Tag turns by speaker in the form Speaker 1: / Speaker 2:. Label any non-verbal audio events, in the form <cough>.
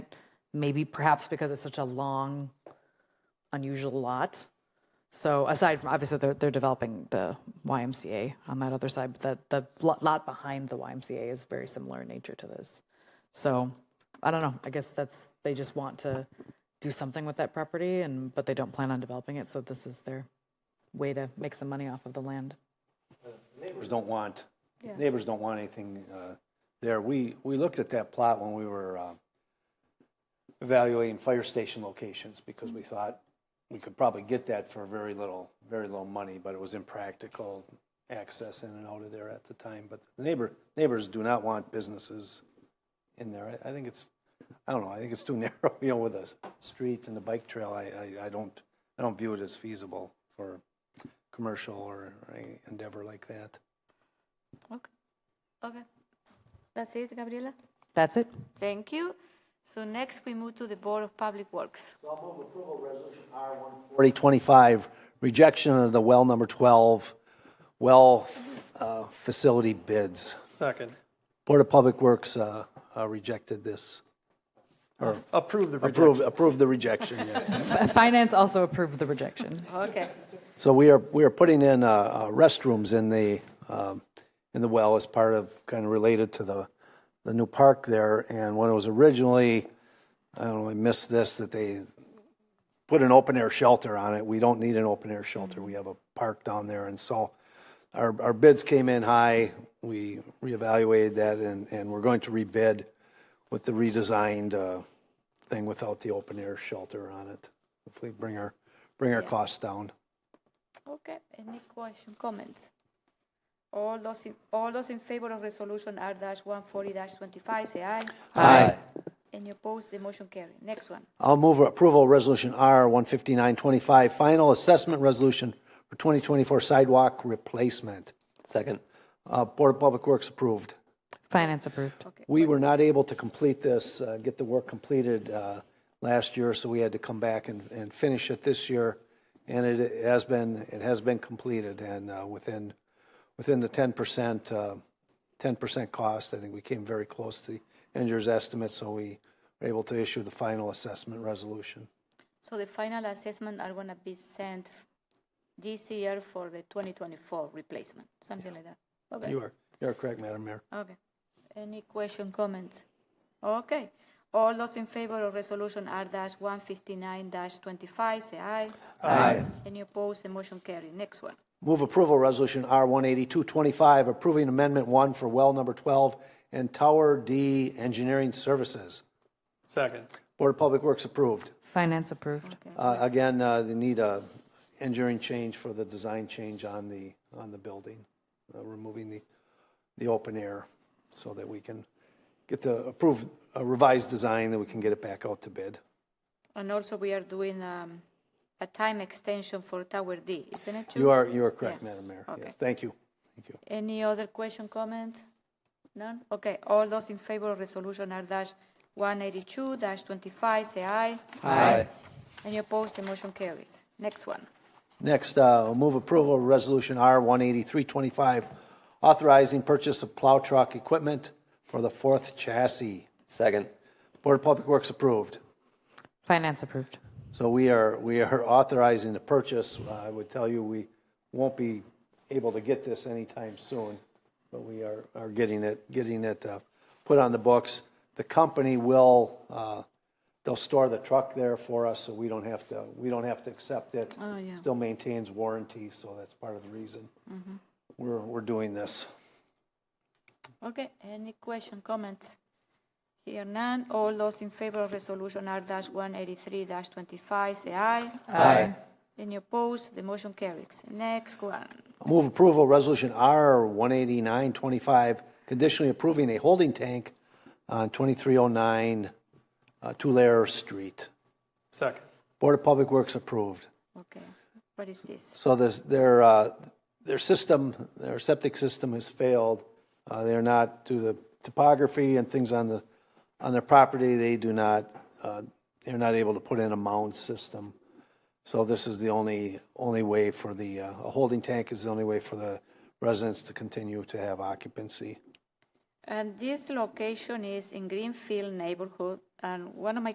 Speaker 1: maybe perhaps because it's such a long, unusual lot. So aside from, obviously, they're, they're developing the YMCA on that other side, but the, the lo- lot behind the YMCA is very similar in nature to this. So, I don't know, I guess that's, they just want to do something with that property and, but they don't plan on developing it, so this is their way to make some money off of the land.
Speaker 2: Neighbors don't want, neighbors don't want anything uh, there. We, we looked at that plot when we were uh, evaluating fire station locations because we thought we could probably get that for very little, very little money, but it was impractical access in and out of there at the time. But the neighbor, neighbors do not want businesses in there. I I think it's, I don't know, I think it's too <laughs> narrow, you know, with the streets and the bike trail. I, I, I don't, I don't view it as feasible for commercial or any endeavor like that.
Speaker 3: Okay. Okay. That's it, Gabriela?
Speaker 1: That's it?
Speaker 3: Thank you. So next, we move to the Board of Public Works.
Speaker 2: 4025, rejection of the well number 12, well uh, facility bids.
Speaker 4: Second.
Speaker 2: Board of Public Works uh, uh, rejected this,
Speaker 4: Approve the rejection.
Speaker 2: approved, approved the rejection, yes.
Speaker 1: F- Finance also approved the rejection.
Speaker 3: Okay.
Speaker 2: So we are, we are putting in uh, uh, restrooms in the, um, in the well as part of, kind of related to the, the new park there. And when it was originally, I don't know, I missed this, that they put an open air shelter on it. We don't need an open air shelter. We have a park down there. And so our, our bids came in high. We reevaluated that and, and we're going to rebid with the redesigned uh, thing without the open air shelter on it. Hopefully bring our, bring our costs down.
Speaker 3: Okay. Any question, comments? All those, in- all those in favor of resolution R dash one forty dash twenty-five, say aye.
Speaker 2: Aye.
Speaker 3: Any opposed, the motion carry. Next one.
Speaker 2: I'll move approval of Resolution R 15925, Final Assessment Resolution for 2024 Sidewalk Replacement.
Speaker 5: Second.
Speaker 2: Uh, Board of Public Works approved.
Speaker 1: Finance approved.
Speaker 2: We were not able to complete this, uh, get the work completed uh, last year, so we had to come back and and finish it this year. And it has been, it has been completed and uh, within, within the 10%, uh, 10% cost. I think we came very close to the end year's estimate, so we were able to issue the final assessment resolution.
Speaker 3: So the final assessment are gonna be sent this year for the twenty twenty-four replacement, something like that. Okay.
Speaker 2: You are, you are correct, Madam Mayor.
Speaker 3: Okay. Any question, comments? Okay. All those in favor of resolution R dash one fifty-nine dash twenty-five, say aye.
Speaker 2: Aye.
Speaker 3: Any opposed, the motion carry. Next one.
Speaker 2: Uh, Move approval, Resolution R 18225, approving Amendment 1 for well number 12 and Tower D Engineering Services.
Speaker 4: Second.
Speaker 2: Board of Public Works approved.
Speaker 1: Finance approved.
Speaker 2: Uh, Again, uh, they need a engineering change for the design change on the, on the building, uh, removing the, the open air so that we can get the approved a revised design, that we can get it back out to bid.
Speaker 3: And also we are doing, um, a time extension for Tower D, isn't it true?
Speaker 2: You are, you are correct,
Speaker 3: Yeah.
Speaker 2: Madam Mayor.
Speaker 3: Okay.
Speaker 2: Yes, thank you. Thank you.
Speaker 3: Any other question, comment? None? Okay, all those in favor of resolution R dash one eighty-two dash twenty-five, say aye.
Speaker 2: Aye.
Speaker 3: Any opposed, the motion carries. Next one.
Speaker 2: Next, uh, move approval of Resolution R 18325, authorizing purchase of plow truck equipment for the fourth chassis.
Speaker 5: Second.
Speaker 2: Board of Public Works approved.
Speaker 1: Finance approved.
Speaker 2: So we are, we are authorizing the purchase. Uh, I would tell you, we won't be able to get this anytime soon, but we are, are getting it, getting it uh, put on the books. The company will, uh, they'll store the truck there for us, so we don't have to, we don't have to accept it.
Speaker 3: Oh, yeah. Mm-hmm.
Speaker 2: Still maintains warranty, so that's part of the reason we're, we're doing this.
Speaker 3: Okay, any question, comments? Here none, all those in favor of resolution R dash one eighty-three dash twenty-five, say aye.
Speaker 2: Aye.
Speaker 3: Any opposed, the motion carries. Next one.
Speaker 2: Move approval, Resolution R 18925, conditionally approving a holding tank on 2309 uh, Tulare Street.
Speaker 4: Second.
Speaker 2: Board of Public Works approved.
Speaker 3: Okay, what is this?
Speaker 2: So this, their, uh, their system, their septic system has failed. Uh, They're not, due to topography and things on the, on their property, they do not, uh, they're not able to put in a mound system. So this is the only, only way for the, uh, a holding tank is the only way for the residents to continue to have occupancy.
Speaker 3: And this location is in Greenfield neighborhood, and one of my